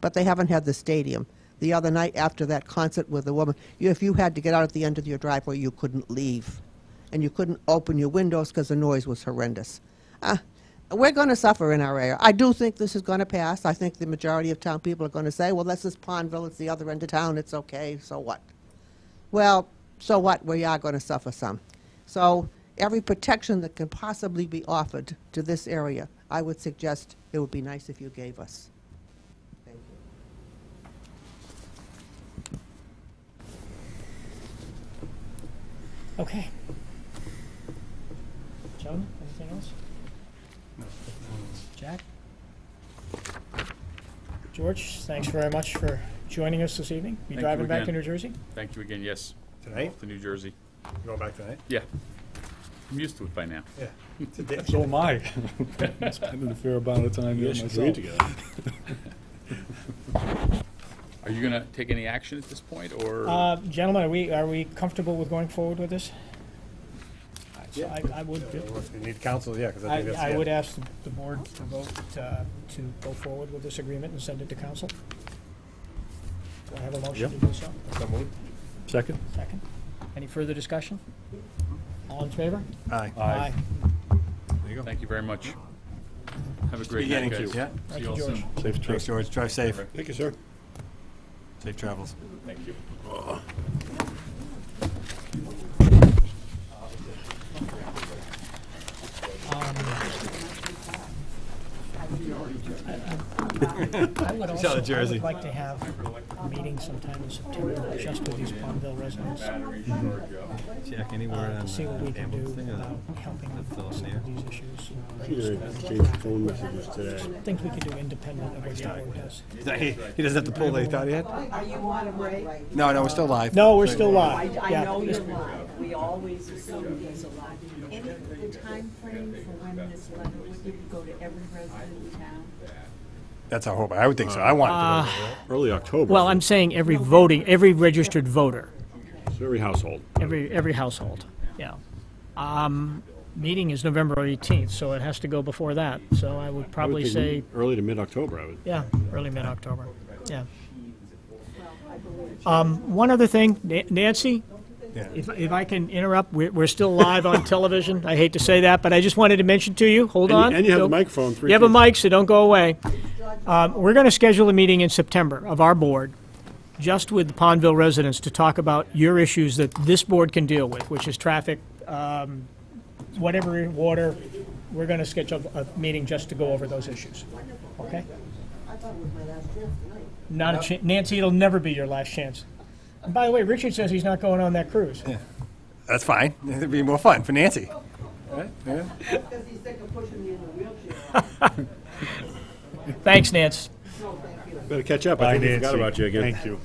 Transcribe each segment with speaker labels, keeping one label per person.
Speaker 1: but they haven't had the stadium. The other night after that concert with the woman, you, if you had to get out at the end of your driveway, you couldn't leave. And you couldn't open your windows because the noise was horrendous. Ah, we're going to suffer in our area. I do think this is going to pass. I think the majority of town people are going to say, well, this is Pondville, it's the other end of town, it's okay, so what? Well, so what? We are going to suffer some. So every protection that can possibly be offered to this area, I would suggest it would be nice if you gave us. Thank you.
Speaker 2: Okay. Joan, anything else? Jack? George, thanks very much for joining us this evening. You
Speaker 3: you
Speaker 2: driving back to
Speaker 3: again.
Speaker 2: New Jersey?
Speaker 3: Thank you again, yes,
Speaker 4: Tonight?
Speaker 3: to New Jersey.
Speaker 4: You going back tonight?
Speaker 3: Yeah, I'm used to it by now.
Speaker 4: Yeah. It's a day.
Speaker 5: So am I. Spending a fair amount of time there myself.
Speaker 3: Are you gonna take any action at this point, or?
Speaker 2: Uh, gentlemen, are we, are we comfortable with going forward with this? So I, I would,
Speaker 4: Yeah, well, if You need counsel, yeah, because I
Speaker 2: I,
Speaker 4: think that's.
Speaker 2: I
Speaker 4: yeah.
Speaker 2: would ask the- the board to vote, uh, to go forward with this agreement and send it to council. Do I have a motion to do so?
Speaker 4: So moved.
Speaker 5: Second?
Speaker 2: Second. Any further discussion? All in favor?
Speaker 4: Aye.
Speaker 5: Aye.
Speaker 3: Thank you very much. Have a great night,
Speaker 4: Beginning
Speaker 3: guys.
Speaker 4: to, yeah.
Speaker 3: See
Speaker 2: Thank
Speaker 3: you
Speaker 2: you,
Speaker 3: all
Speaker 2: George.
Speaker 3: soon.
Speaker 5: Safe trip.
Speaker 4: Thanks, George. Drive safe.
Speaker 5: Thank you, sir.
Speaker 4: Safe travels.
Speaker 3: Thank you.
Speaker 2: Um, I would
Speaker 4: He's out
Speaker 2: also,
Speaker 4: of
Speaker 2: I
Speaker 4: Jersey.
Speaker 2: would like to have a meeting sometime in September, just with these Palmville residents, uh,
Speaker 6: Jack, anywhere
Speaker 2: to
Speaker 6: on
Speaker 2: see what we can do
Speaker 6: Amherst thing
Speaker 4: uh,
Speaker 6: or
Speaker 2: about helping
Speaker 6: that's
Speaker 2: with
Speaker 6: all
Speaker 2: some
Speaker 6: near.
Speaker 2: of these issues.
Speaker 7: Peter exchanged phone messages today.
Speaker 2: Things we can do independent of what the board does.
Speaker 4: He he doesn't have to pull, they thought he had?
Speaker 8: Are you on a break?
Speaker 4: No, no, we're still live.
Speaker 2: No, we're still
Speaker 8: I,
Speaker 2: live,
Speaker 8: I know you're
Speaker 2: yeah.
Speaker 8: live, we always assume he's alive.
Speaker 9: Any, the timeframe for when this letter would go to every resident in town?
Speaker 4: That's our hope. I would think so. I
Speaker 2: Ah.
Speaker 4: want it
Speaker 7: Early October.
Speaker 2: Well, I'm saying every voting, every registered voter,
Speaker 7: It's every household.
Speaker 2: every, every household, yeah. Um, meeting is November 18th, so it has to go before that, so I would
Speaker 7: I would
Speaker 2: probably
Speaker 7: think
Speaker 2: say,
Speaker 7: Early to mid-October, I would.
Speaker 2: yeah, early mid-October, yeah. Um,
Speaker 9: Well, I believe.
Speaker 2: One other thing, Na- Nancy,
Speaker 4: Yeah.
Speaker 2: if, if I can interrupt, we're, we're still live on television. I hate to say that, but I just wanted to mention to you, hold
Speaker 7: And you-
Speaker 2: on.
Speaker 7: and you have the
Speaker 2: Don't-
Speaker 7: microphone, three
Speaker 2: You have a
Speaker 7: people.
Speaker 2: mic, so don't go away. Um, we're going to schedule a meeting in September of our board, just with the Pondville residents, to talk about your issues that this board can deal with, which is traffic, um, whatever, water. We're going to schedule a meeting just to go over those issues, okay?
Speaker 1: I thought it was my last chance tonight.
Speaker 2: Not a chan Nancy, it'll never be your last chance. And by the way, Richard says he's not going on that cruise.
Speaker 4: to. That's fine. It'd be more fun for Nancy.
Speaker 1: Because he's sick of pushing me in the wheelchair.
Speaker 2: Thanks, Nance.
Speaker 7: Better catch up.
Speaker 5: Bye,
Speaker 7: I think we forgot
Speaker 5: Nancy.
Speaker 7: about you again.
Speaker 5: Thank you.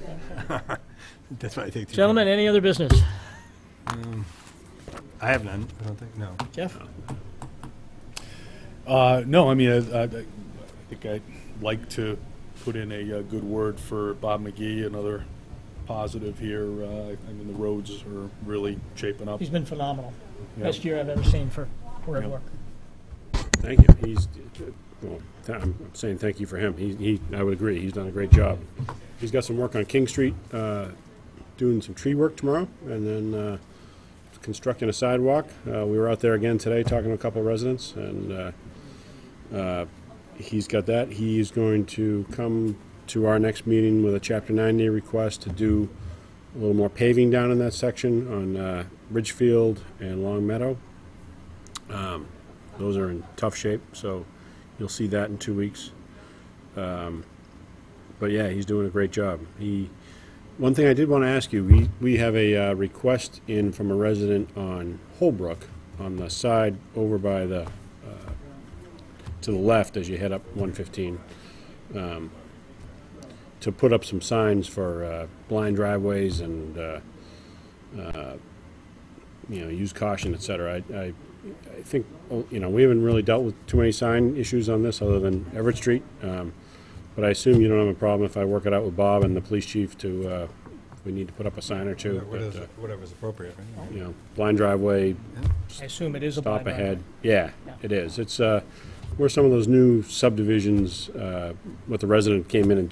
Speaker 4: That's why I take.
Speaker 2: Gentlemen, any other business?
Speaker 4: I have none. I don't think, no.
Speaker 2: Jeff?
Speaker 5: Uh, no, I mean, I, I, I think I'd like to put in a, uh good word for Bob McGee, another positive here. Uh, I mean, the roads are really shaping up.
Speaker 2: He's been phenomenal.
Speaker 5: Yeah.
Speaker 2: Best year I've ever seen for road
Speaker 5: Yeah.
Speaker 2: work.
Speaker 7: Thank you. He's, well, th- I'm saying thank you for him. He, he, I would agree, he's done a great job. He's got some work on King Street, uh, doing some tree work tomorrow, and then, uh, constructing a sidewalk. Uh, we were out there again today talking to a couple of residents, and, uh, uh, he's got that. He is going to come to our next meeting with a Chapter 90 request to do a little more paving down in that section on, uh, Ridgefield and Long Meadow. Those are in tough shape, so you'll see that in two weeks. Um, but yeah, he's doing a great job. He, one thing I did want to ask you, we, we have a uh, request in from a resident on Holbrook, on the side over by the, uh, to the left as you head up 115, um, to put up some signs for uh, blind driveways and, uh, you know, use caution, et cetera. I, I, I think, oh, you know, we haven't really dealt with too many sign issues on this other than Everett Street. Um, but I assume you don't have a problem if I work it out with Bob and the police chief to, uh, if we need to put up a sign or two. but, uh,
Speaker 4: Whatever's appropriate, right?
Speaker 7: You know, blind driveway,
Speaker 2: I assume it is a blind
Speaker 7: stop
Speaker 2: drive.
Speaker 7: ahead. Yeah, it is. It's, uh, where some of those new subdivisions, uh, what the resident came in and